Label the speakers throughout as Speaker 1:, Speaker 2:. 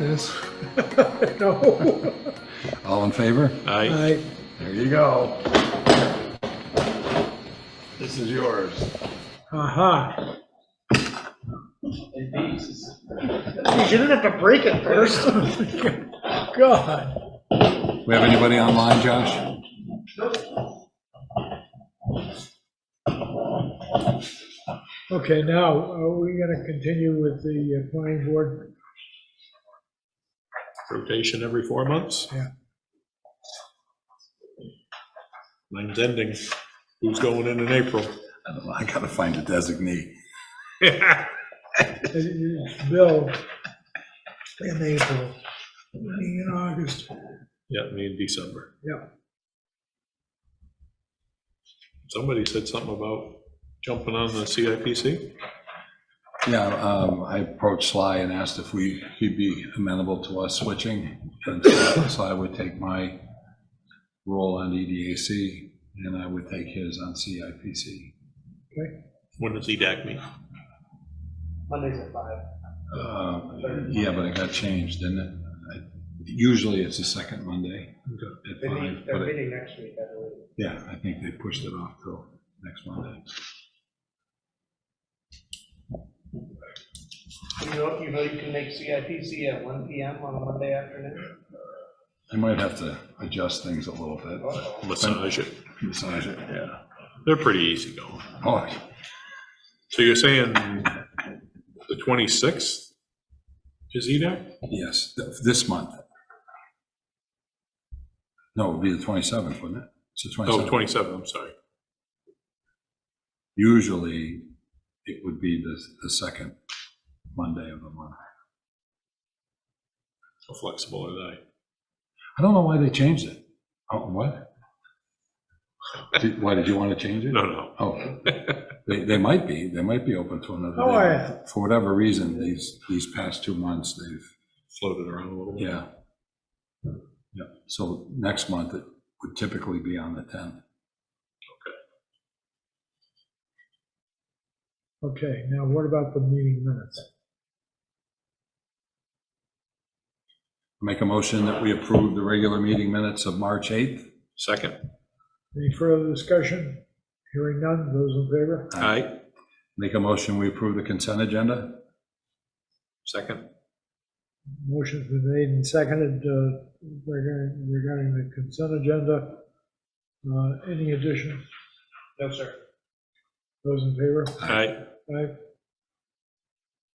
Speaker 1: this? No.
Speaker 2: All in favor?
Speaker 3: I,
Speaker 1: I,
Speaker 2: There you go. This is yours.
Speaker 1: aha.
Speaker 4: You didn't have to break it first.
Speaker 1: God.
Speaker 2: We have anybody online, Josh?
Speaker 1: Okay, now, are we gonna continue with the uh, planning board?
Speaker 3: rotation every four months?
Speaker 1: Yeah.
Speaker 3: Mine's ending. Who's going in in April?
Speaker 2: I don't know, I gotta find a designee.
Speaker 1: It's uh, Bill in April, me in August,
Speaker 3: Yeah, me in December.
Speaker 1: yeah.
Speaker 3: Somebody said something about jumping on the CIPC?
Speaker 2: Yeah, um, I approached Sly and asked if we, he'd be amenable to us switching. And so Sly would take my role on E EDAC and I would take his on CIPC.
Speaker 3: When does E EDAC meet?
Speaker 4: Mondays at five.
Speaker 2: Uh, Yeah, but it got changed, didn't it? I- Usually it's the second Monday at
Speaker 4: They
Speaker 2: five,
Speaker 4: meet,
Speaker 2: but
Speaker 4: they're
Speaker 2: it-
Speaker 4: meeting next week, I believe.
Speaker 2: yeah, I think they pushed it off till next Monday.
Speaker 4: You know, you know you can make CIPC at one PM on a Monday afternoon?
Speaker 2: I might have to adjust things a little bit, but
Speaker 3: Massage it.
Speaker 2: massage it, yeah.
Speaker 3: They're pretty easy going.
Speaker 2: Oh,
Speaker 3: So you're saying the 26th is E EDAC?
Speaker 2: yes, th- this month. No, it would be the 27th, wouldn't it? It's the
Speaker 3: Oh,
Speaker 2: 27th.
Speaker 3: 27th, I'm sorry.
Speaker 2: Usually it would be the, the second Monday of the month.
Speaker 3: How flexible are they?
Speaker 2: I don't know why they changed it. Oh, what? Did- Why, did you want to change it?
Speaker 3: No, no.
Speaker 2: Oh, they, they might be, they might be open to another.
Speaker 1: Oh,
Speaker 2: day.
Speaker 1: yeah.
Speaker 2: For whatever reason, these, these past two months, they've,
Speaker 3: Floated around a little bit.
Speaker 2: yeah. Yeah, so next month, it would typically be on the 10th.
Speaker 1: Okay, now what about the meeting minutes?
Speaker 2: Make a motion that we approve the regular meeting minutes of March 8th.
Speaker 3: Second.
Speaker 1: Any further discussion? Hearing none, those in favor?
Speaker 3: Aye.
Speaker 2: Make a motion, we approve the consent agenda.
Speaker 3: Second.
Speaker 1: Motion's been made and seconded uh, regarding regarding the consent agenda. Uh, Any addition?
Speaker 4: No, sir.
Speaker 1: Those in favor?
Speaker 3: Aye.
Speaker 1: Aye.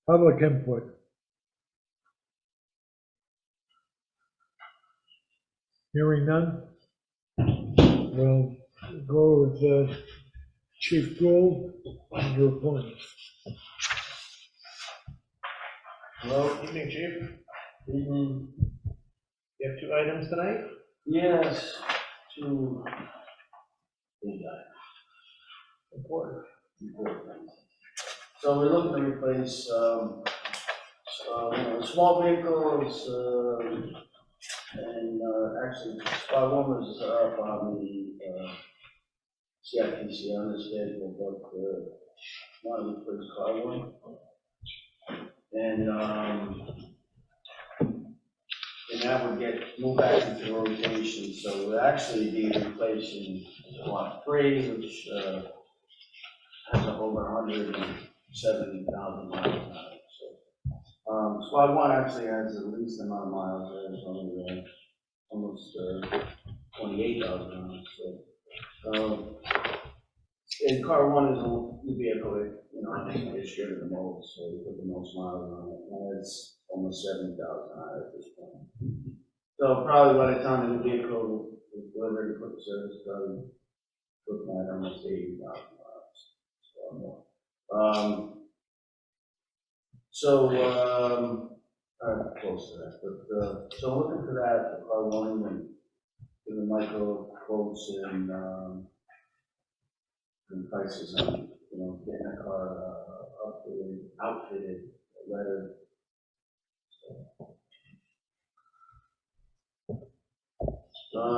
Speaker 1: Public input. Hearing none? We'll go with uh, Chief Gould under appointment.
Speaker 4: Hello, evening, chief.
Speaker 5: Evening.
Speaker 4: You have two items tonight?
Speaker 5: Yes, to. Important. So we're looking to replace, um, um, you know, small vehicles, um, and, uh, actually, spot one is up on the, uh, CIPC on the schedule, but, uh, not replace spot one. And, um, and that would get moved back into rotation, so it would actually be replacing lot three, which uh, has over hundred and seventy thousand miles on it, so. Um, Squad one actually has the least amount of miles, there's only uh, almost uh, twenty-eight thousand miles, so. um, And car one is the vehicle, that, you know, I think it's shared the most, so we put the most miles on it, and it's almost seventy thousand miles at this point. So probably by the time the vehicle is delivered, put the service, probably looking at almost eighty thousand miles. or more. Um, So, um, uh, close to that, but, uh, so looking for that, I want and give the micro quotes and, um, and prices on, you know, getting a car, uh, updated, outfitted, whether Uh,